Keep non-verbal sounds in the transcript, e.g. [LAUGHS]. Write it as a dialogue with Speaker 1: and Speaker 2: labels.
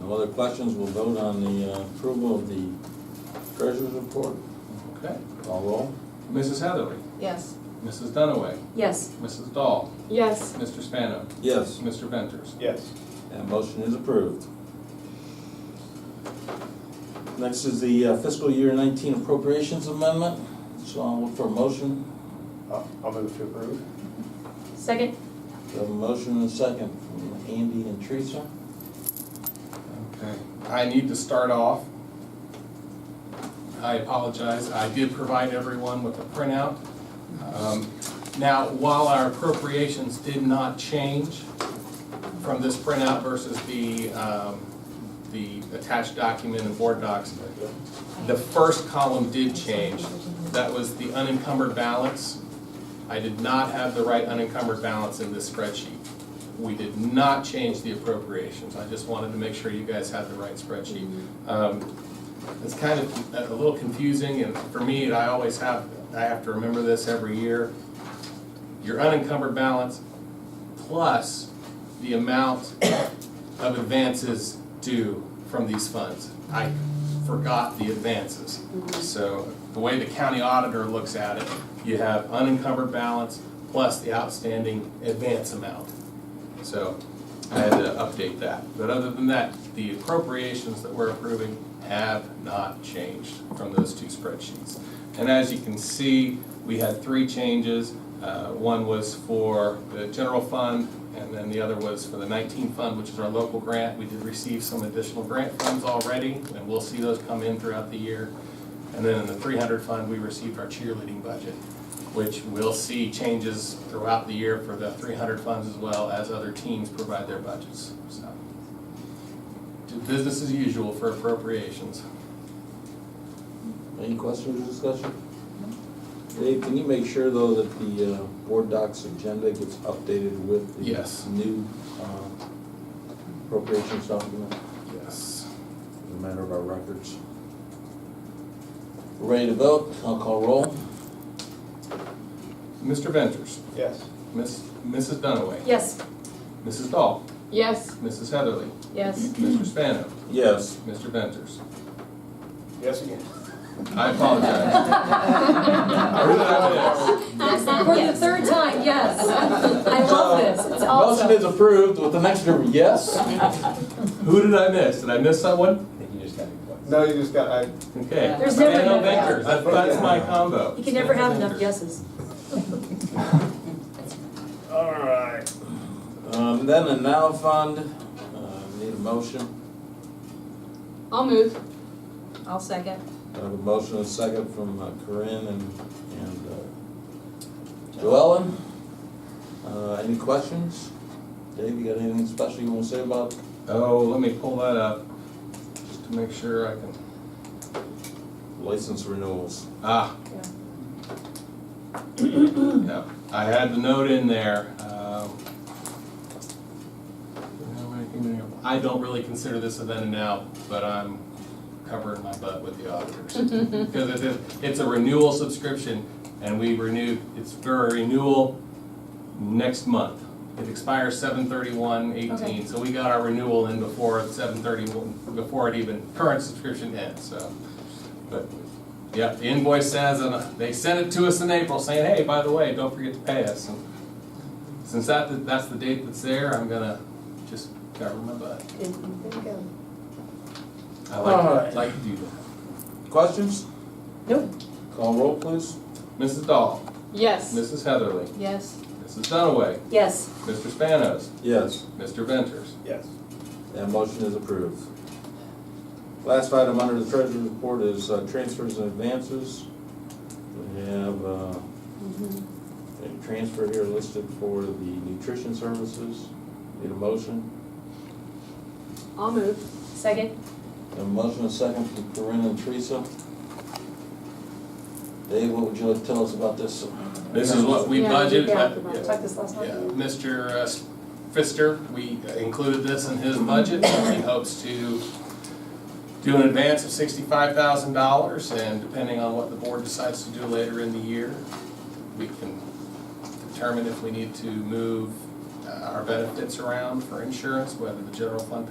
Speaker 1: No other questions, we'll vote on the uh, approval of the treasurer's report.
Speaker 2: Okay.
Speaker 1: Call roll.
Speaker 2: Mrs. Heatherly,
Speaker 3: Yes.
Speaker 2: Mrs. Dunaway,
Speaker 4: Yes.
Speaker 2: Mrs. Dahl,
Speaker 3: Yes.
Speaker 2: Mr. Spano,
Speaker 1: Yes,
Speaker 2: Mr. Venters.
Speaker 5: Yes.
Speaker 1: that motion is approved. Next is the uh, fiscal year nineteen appropriations amendment, so I'll look for a motion.
Speaker 5: I'll I'll move to approve.
Speaker 4: Second?
Speaker 1: We have a motion and a second from Andy and Teresa.
Speaker 2: Okay, I need to start off. I apologize, I did provide everyone with a printout. Um, Now, while our appropriations did not change from this printout versus the, um, the attached document in board docs, the first column did change. That was the unencumbered balance. I did not have the right unencumbered balance in this spreadsheet. We did not change the appropriations, I just wanted to make sure you guys had the right spreadsheet. Um, It's kind of a a little confusing, and for me, I always have, I have to remember this every year. Your unencumbered balance plus the amount of advances due from these funds. I forgot the advances. So the way the county auditor looks at it, you have unencumbered balance plus the outstanding advance amount. So I had to update that. But other than that, the appropriations that we're approving have not changed from those two spreadsheets. And as you can see, we had three changes. Uh, One was for the general fund, and then the other was for the 19 fund, which is our local grant. We did receive some additional grant funds already, and we'll see those come in throughout the year. And then in the 300 fund, we received our cheerleading budget, which we'll see changes throughout the year for the 300 funds as well as other teams provide their budgets, so. Business as usual for appropriations.
Speaker 1: Any questions or discussion? Dave, can you make sure though that the uh, board docs agenda gets updated with the
Speaker 2: Yes.
Speaker 1: new uh, appropriations document?
Speaker 2: Yes.
Speaker 1: As a matter of our records. We're Ready to vote? I'll call roll.
Speaker 2: Mr. Ventures,
Speaker 5: Yes.
Speaker 2: Miss, Mrs. Dunaway,
Speaker 4: Yes.
Speaker 2: Mrs. Dahl,
Speaker 3: Yes.
Speaker 2: Mrs. Heatherly, [LAUGHS]
Speaker 4: [LAUGHS]
Speaker 3: Yes.
Speaker 2: Mr. Spano,
Speaker 1: Yes.
Speaker 2: Mr. Ventures.
Speaker 5: Yes again.
Speaker 2: I apologize.
Speaker 4: For the third time, yes. I love this, it's
Speaker 1: Uh, Motion
Speaker 4: awesome.
Speaker 1: is approved with an extra yes.
Speaker 2: Who did I miss? Did I miss someone?
Speaker 5: No, you just got, I,
Speaker 2: Okay.
Speaker 4: There's never
Speaker 2: Spano,
Speaker 4: enough.
Speaker 2: Ventures, That- that's my combo.
Speaker 4: You can never have enough
Speaker 2: Ventures.
Speaker 4: yeses.
Speaker 5: all right.
Speaker 1: Um, Then the now fund, uh, need a motion.
Speaker 3: I'll move.
Speaker 4: I'll second.
Speaker 1: I have a motion and a second from uh, Corinne and, and uh, Joellen. Uh, Any questions? Dave, you got anything special you want to say about?
Speaker 2: Oh, let me pull that up, just to make sure I can,
Speaker 1: License renewals.
Speaker 2: ah. Yep, I had the note in there, um. I don't have anything in there. I don't really consider this a then and now, but I'm covering my butt with the auditors. Because it's, it's a renewal subscription, and we renewed, it's for a renewal next month. It expires seven thirty-one
Speaker 4: Okay.
Speaker 2: eighteen, so we got our renewal in before seven thirty-one, before it even, current subscription ends, so. But, yeah, the invoice says, and they sent it to us in April saying, hey, by the way, don't forget to pay us. And Since that, that's the date that's there, I'm gonna just cover my butt. I like,
Speaker 1: Alright.
Speaker 2: to- like to do that.
Speaker 1: Questions?
Speaker 4: Nope.
Speaker 1: Call roll, please.
Speaker 2: Mrs. Dahl,
Speaker 3: Yes.
Speaker 2: Mrs. Heatherly,
Speaker 3: Yes.
Speaker 2: Mrs. Dunaway,
Speaker 4: Yes.
Speaker 2: Mr. Spanos,
Speaker 1: Yes.
Speaker 2: Mr. Ventures.
Speaker 5: Yes.
Speaker 1: That motion is approved. Last item under the treasurer's report is uh, transfers and advances. We have uh, a transfer here listed for the nutrition services. Need a motion?
Speaker 3: I'll move.
Speaker 4: Second?
Speaker 1: Have a motion and a second from Corinne and Teresa. Dave, what would you like to tell us about this?
Speaker 2: This is what we
Speaker 3: Yeah, we
Speaker 2: budgeted,
Speaker 3: did that.
Speaker 2: but- yeah.
Speaker 4: Talked this last
Speaker 2: Yeah, Mr. uh, Pfister, we included this in his budget, and he hopes to do an advance of sixty-five thousand dollars, and depending on what the board decides to do later in the year, we can determine if we need to move uh, our benefits around for insurance, whether the general fund